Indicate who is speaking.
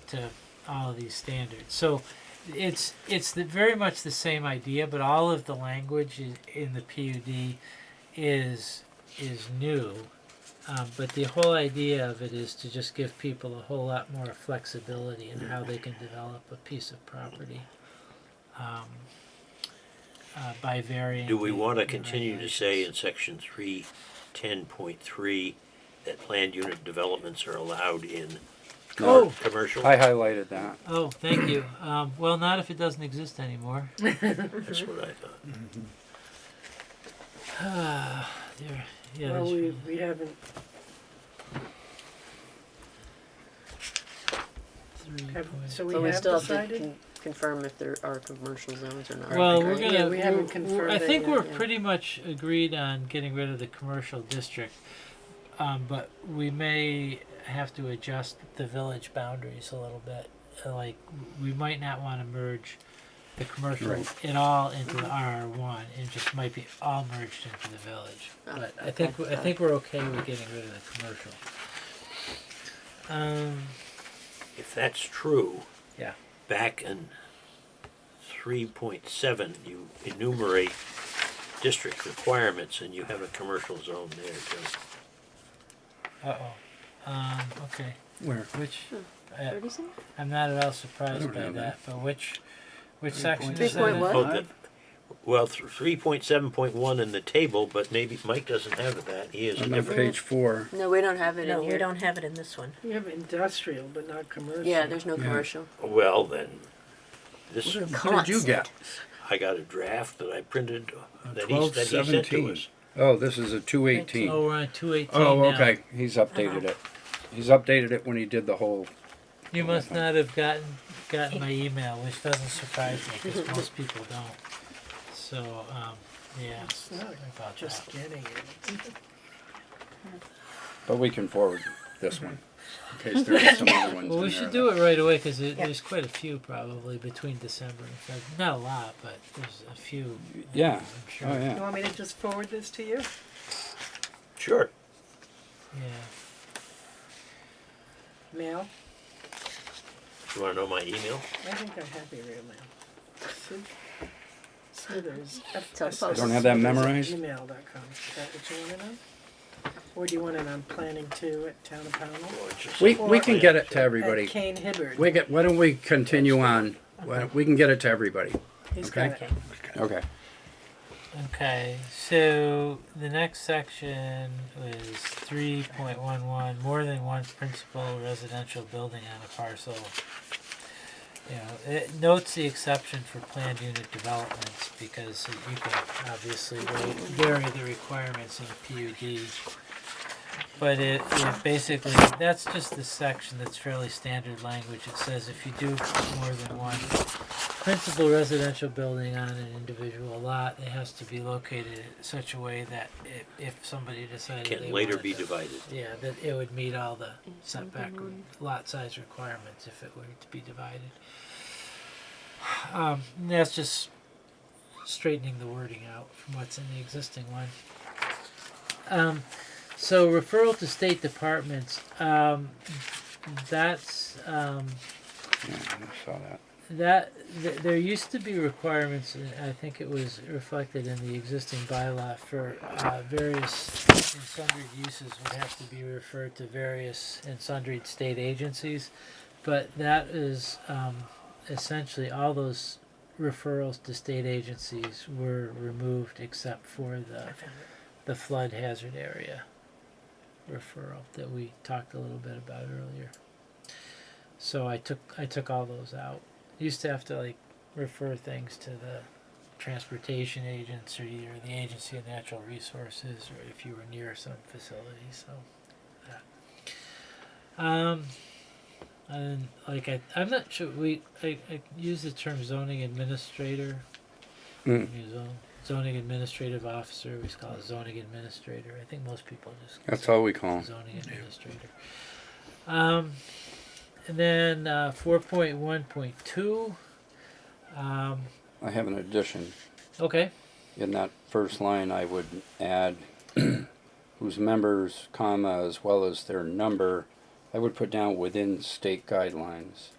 Speaker 1: respect to all of these standards. So it's it's the, very much the same idea, but all of the language i- in the PUD is is new. Um, but the whole idea of it is to just give people a whole lot more flexibility in how they can develop a piece of property um, uh, by varying.
Speaker 2: Do we
Speaker 1: the-
Speaker 2: want to
Speaker 1: the
Speaker 2: continue to say in
Speaker 1: regulations.
Speaker 2: section three, ten point three, that planned unit developments are allowed in
Speaker 1: Oh.
Speaker 2: com- commercial?
Speaker 3: I highlighted that.
Speaker 1: Oh, thank you. Um, well, not if it doesn't exist anymore.
Speaker 2: That's what I thought.
Speaker 1: Ah, dear. Yeah,
Speaker 4: Well,
Speaker 1: that's-
Speaker 4: we, we haven't,
Speaker 1: Three
Speaker 4: have-
Speaker 1: point-
Speaker 4: so
Speaker 5: But
Speaker 4: we
Speaker 5: we
Speaker 4: have
Speaker 5: still have to
Speaker 4: decided?
Speaker 5: con- confirm if there are commercial zones or not.
Speaker 1: Well,
Speaker 5: right?
Speaker 1: we're gonna.
Speaker 4: Yeah, we haven't
Speaker 1: we're- we're-
Speaker 4: confirmed
Speaker 1: I
Speaker 4: it
Speaker 1: think
Speaker 4: yet,
Speaker 1: we're
Speaker 5: yeah.
Speaker 1: pretty much agreed on getting rid of the commercial district, um, but we may have to adjust the village boundaries a little bit. Uh, Like, we might not wanna merge the commercial
Speaker 3: Right.
Speaker 1: at all into the RR one, and just might be all merged into the village.
Speaker 4: Ah,
Speaker 5: Oh,
Speaker 1: But I
Speaker 5: okay,
Speaker 1: think, we- I
Speaker 5: got it.
Speaker 1: think we're okay with getting rid of the commercial. Um,
Speaker 2: If that's true.
Speaker 1: Yeah.
Speaker 2: Back in three point seven, you enumerate district requirements and you have a commercial zone there too.
Speaker 1: uh-oh, um, okay,
Speaker 3: Where?
Speaker 1: which, uh,
Speaker 5: Thirty-seven?
Speaker 1: I'm not at all
Speaker 3: I
Speaker 1: surprised
Speaker 3: don't
Speaker 1: by
Speaker 3: know
Speaker 1: that,
Speaker 3: that.
Speaker 1: but which, which
Speaker 3: Three
Speaker 1: section
Speaker 3: point
Speaker 1: is that?
Speaker 5: seven.
Speaker 1: in?
Speaker 5: What?
Speaker 2: Oh, the- Well, three point seven point one in the table, but maybe Mike doesn't have that. He has a
Speaker 3: On
Speaker 2: different.
Speaker 3: page four.
Speaker 5: No, we don't have it
Speaker 6: No,
Speaker 5: in
Speaker 6: we
Speaker 5: here.
Speaker 6: don't have it in this one.
Speaker 4: We have industrial, but not commercial.
Speaker 5: Yeah, there's no
Speaker 3: Yeah.
Speaker 5: commercial.
Speaker 2: Well, then, this,
Speaker 3: What did you get?
Speaker 2: I got a draft that I printed that he,
Speaker 7: Uh, Twelve
Speaker 2: that he sent to
Speaker 7: seventeen.
Speaker 2: us.
Speaker 3: Oh, this is a two
Speaker 1: Oh,
Speaker 3: eighteen.
Speaker 1: we're on two eighteen
Speaker 3: Oh, okay, he's updated it.
Speaker 1: Uh-huh.
Speaker 3: He's updated it when he did the whole,
Speaker 1: You must not have gotten gotten my email, which doesn't surprise me because most people don't. So, um, yeah,
Speaker 4: It's not
Speaker 1: sorry about
Speaker 4: Just
Speaker 1: that.
Speaker 4: getting it.
Speaker 3: but we can forward this one. In case there are some other ones in
Speaker 1: Well, we
Speaker 3: there
Speaker 1: should
Speaker 3: that-
Speaker 1: do it right away because
Speaker 6: Yeah.
Speaker 1: there's quite a few probably between December and February. Not a lot, but there's a few. uh,
Speaker 3: Yeah.
Speaker 1: I'm sure.
Speaker 3: Oh,
Speaker 4: You
Speaker 3: yeah.
Speaker 4: want me to just forward this to you?
Speaker 2: Sure.
Speaker 1: Yeah.
Speaker 4: Mail?
Speaker 2: You wanna know my email?
Speaker 4: I think I have your real mail. Sid- Smithers. F-
Speaker 5: Tell
Speaker 4: S-
Speaker 5: folks.
Speaker 3: Don't have that
Speaker 4: Smithers at
Speaker 3: memorized?
Speaker 4: Gmail dot com. Is that what you wanna know? Or do you want it on planning two at Town of Pownell?
Speaker 2: Or it's just
Speaker 3: We,
Speaker 2: a-
Speaker 3: we can get it to
Speaker 4: At
Speaker 3: everybody.
Speaker 4: Kane Hibbard.
Speaker 3: We get, why don't we continue on? Why don't- We can get it to everybody.
Speaker 4: He's
Speaker 3: okay.
Speaker 4: got it.
Speaker 3: Okay.
Speaker 1: Okay, so the next section is three point one one, more than one principal residential building on a parcel. You know, it notes the exception for planned unit developments because you can obviously vary- vary the requirements in a PUD. But it, it basically, that's just the section that's fairly standard language. It says if you do more than one principal residential building on an individual lot, it has to be located in such a way that if, if somebody decided they
Speaker 2: Can later
Speaker 1: wanted
Speaker 2: be
Speaker 1: to-
Speaker 2: divided.
Speaker 1: Yeah, that it would meet all the setback re- lot size requirements if it were to be divided. Um, and that's just straightening the wording out from what's in the existing one. Um, so referral to state departments, um, that's, um,
Speaker 3: Yeah, I saw that.
Speaker 1: that th- there used to be requirements and i think it was reflected in the existing bylaw for uh, various and sundry uses would have to be referred to various and sundry state agencies but that is um, essentially all those referrals to state agencies were removed except for the the flood hazard area referral that we talked a little bit about earlier so i took i took all those out used to have to like refer things to the transportation agency or the agency of natural resources or if you were near some facility so that. um and like I, I'm not sure we I, I use the term zoning administrator
Speaker 3: Mm.
Speaker 1: You zone- zoning administrative officer we just call it zoning administrator I think most people just
Speaker 3: That's all we call 'em.
Speaker 1: zoning administrator. Um, and then uh, four point one point two. Um,
Speaker 3: I have an addition.
Speaker 1: okay.
Speaker 3: In that first line, I would add whose members, comma, as well as their number I would put down within state guidelines.